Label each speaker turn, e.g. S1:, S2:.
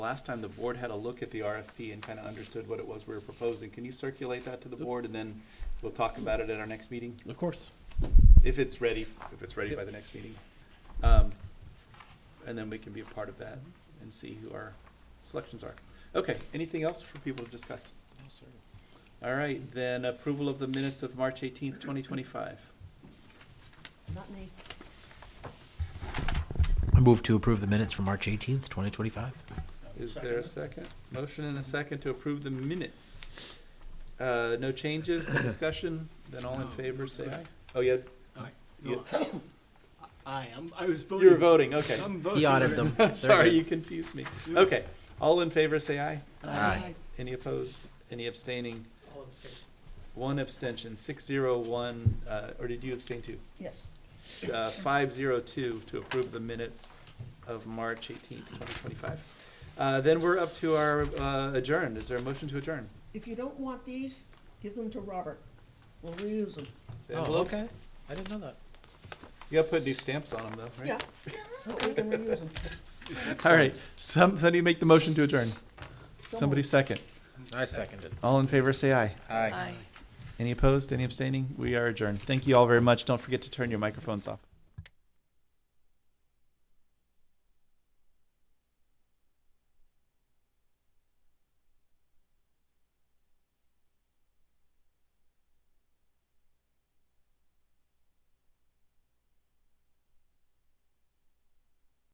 S1: Last time, the board had a look at the RFP and kind of understood what it was we were proposing. Can you circulate that to the board, and then we'll talk about it at our next meeting?
S2: Of course.
S1: If it's ready, if it's ready by the next meeting. Um, And then we can be a part of that and see who our selections are. Okay, anything else for people to discuss? All right, then approval of the minutes of March eighteenth, twenty twenty-five.
S3: Not me.
S4: I move to approve the minutes for March 18th, 2025.
S1: Is there a second? Motion and a second to approve the minutes. Uh, no changes, no discussion, then all in favor, say aye. Oh, yeah,
S2: No, I am, I was voting.
S1: you were voting, okay.
S2: I'm
S4: He
S2: voting.
S4: ordered them. They're
S1: Sorry,
S4: good.
S1: you confused me. Okay, all in favor, say aye.
S4: Aye.
S1: Any opposed? Any abstaining? One abstention, six zero one, uh, or did you abstain too?
S3: Yes.
S1: Uh, five zero two to approve the minutes of March eighteenth, twenty twenty-five. Uh, then we're up to our, uh, adjourn. Is there a motion to adjourn?
S3: If you don't want these, give them to Robert. We'll reuse them.
S4: Oh,
S1: Envelopes?
S4: okay. I didn't know that.
S1: You gotta put new stamps on them though, right?
S3: Yeah. We can reuse them.
S1: All right, some, somebody make the motion to adjourn. Somebody second.
S4: I seconded.
S1: All in favor, say aye.
S4: Aye.
S1: Any opposed? Any abstaining? We are adjourned. Thank you all very much. Don't forget to turn your microphones off.